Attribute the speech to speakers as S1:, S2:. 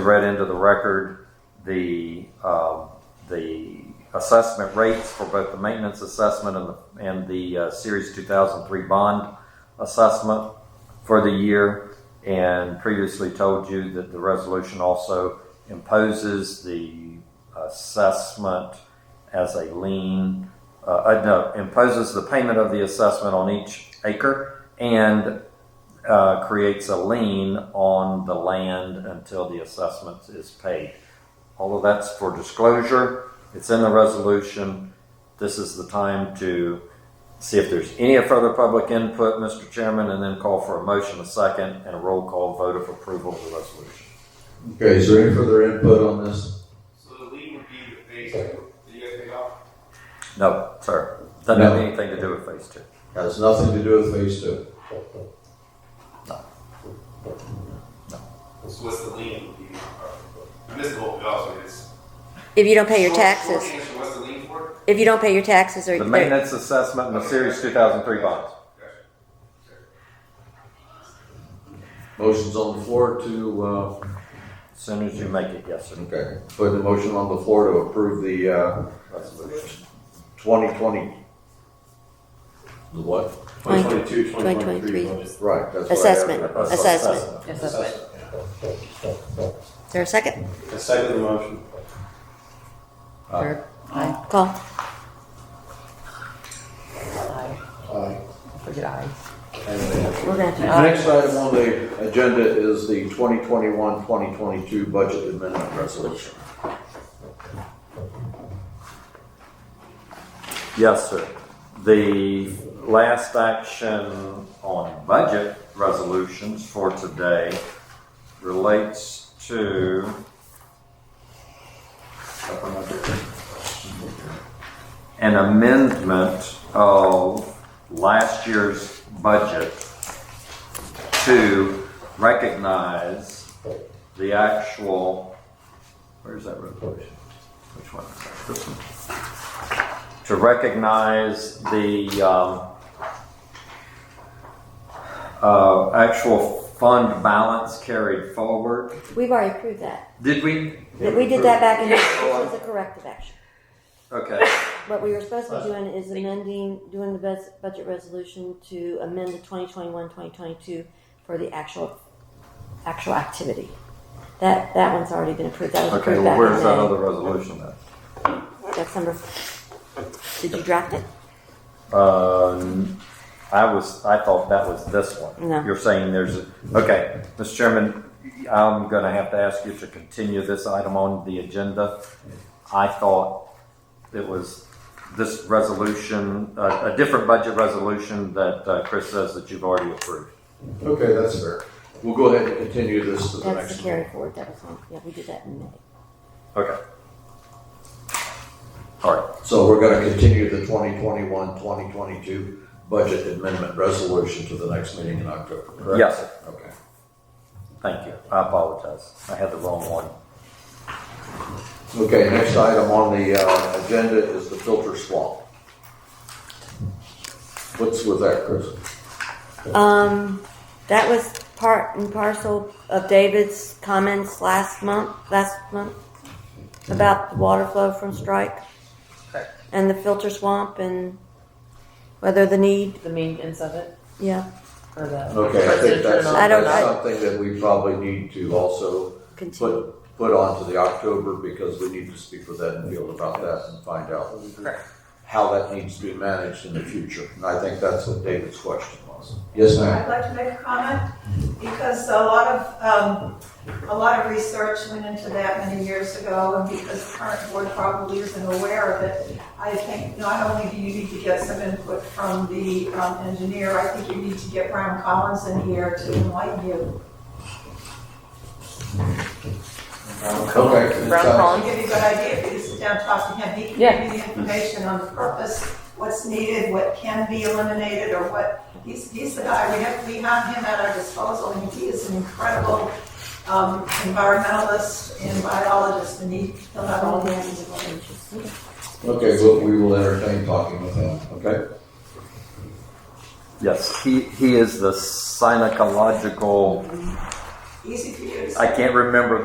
S1: read into the record the, um, the assessment rates for both the maintenance assessment and the, and the uh, Series 2003 bond assessment for the year, and previously told you that the resolution also imposes the assessment as a lien, uh, uh, no, imposes the payment of the assessment on each acre and uh, creates a lien on the land until the assessment is paid. All of that's for disclosure. It's in the resolution. This is the time to see if there's any further public input, Mr. Chairman, and then call for a motion, a second, and a roll call vote of approval of the resolution.
S2: Okay, is there any further input on this?
S3: So the lien would be the phase two, the FAR.
S1: No, sir. Doesn't have
S2: No.
S1: anything to do with phase two.
S2: Has nothing to do with phase two.
S3: So what's the lien would be? I missed the whole thing also. It's
S4: If you don't pay your
S3: Short- short
S4: taxes,
S3: answer, what's the lien for?
S4: if you don't pay your taxes or
S1: The maintenance assessment and the series two thousand three bonds.
S2: Motion's on the floor to, uh,
S1: As soon as you make it, yes, sir.
S2: okay, put the motion on the floor to approve the, uh,
S1: Resolution.
S2: twenty twenty. The what?
S4: 2022, 2023.
S2: Right, that's what I have.
S4: Assessment.
S2: Assessment.
S4: Assessment. Is there a second?
S3: The second motion.
S4: Or-
S1: Uh,
S4: Aye. Call.
S5: Forget I.
S4: We're gonna have
S2: The next item on the agenda is the 2021, 2022 budget amendment resolution.
S1: Yes, sir. The last action on budget resolutions for today relates to an amendment of last year's budget to recognize the actual, where's that resolution? Which one? This one? to recognize the um, uh, actual fund balance carried forward.
S4: to- We've already approved that.
S1: Did we?
S4: We did that back in, this was a corrective action.
S1: Okay,
S4: What we were supposed to be doing is amending, doing the bus- budget resolution to amend the 2021, 2022 for the actual, actual activity. That, that one's already been approved. That was
S1: okay,
S4: approved
S1: well,
S4: back
S1: where's that other
S4: in
S1: resolution then?
S4: May. That's number, did you draft it?
S1: Uh, n- I was, I thought that was this one.
S4: No.
S1: You're saying there's, a- okay, Mr. Chairman, I'm gonna have to ask you to continue this item on the agenda. I thought it was this resolution, a, a different budget resolution that uh, Chris says that you've already approved.
S2: Okay, that's fair. We'll go ahead and continue this to the
S4: That's
S2: next
S4: the
S2: one.
S4: carry forward. That was on, yeah, we did that in May.
S1: Okay. All right,
S2: So we're gonna continue the 2021, 2022 budget amendment resolution to the next meeting in October, correct?
S1: yes, sir.
S2: Okay.
S1: thank you. I apologize. I had the wrong one.
S2: Okay, next item on the uh, agenda is the filter swap. What's with that, Chris?
S4: Um, that was part and parcel of David's comments last month, last month, about the water flow from Strike and the filter swamp and whether the need,
S5: The maintenance of it,
S4: yeah,
S5: or the.
S2: Okay, I think that's,
S4: I don't
S2: that's
S4: know.
S2: something that we probably need to also
S4: continue.
S2: put, put onto the October because we need to speak with Ed and Field about that and find out
S5: Correct.
S2: how that needs to be managed in the future. And I think that's what David's question was. Yes, ma'am?
S6: I'd like to make a comment because a lot of, um, a lot of research went into that many years ago and because the current board probably isn't aware of it. I think not only do you need to get some input from the um, engineer, I think you need to get Brian Collins in here to enlighten you.
S2: Okay. it
S5: Brown
S2: sounds-
S5: Collins?
S6: I'll give you a good idea if you sit down, and talk to him. He can give you the information on the purpose, what's needed, what can be eliminated or what He's, he's the guy, we have, we have him at our disposal, and he is an incredible um, environmentalist and biologist, and he, he'll have all the answers.
S2: Okay, well, we will entertain talking with him, okay?
S1: Yes, he, he is the synecological,
S6: Easy for you to say.
S1: I can't remember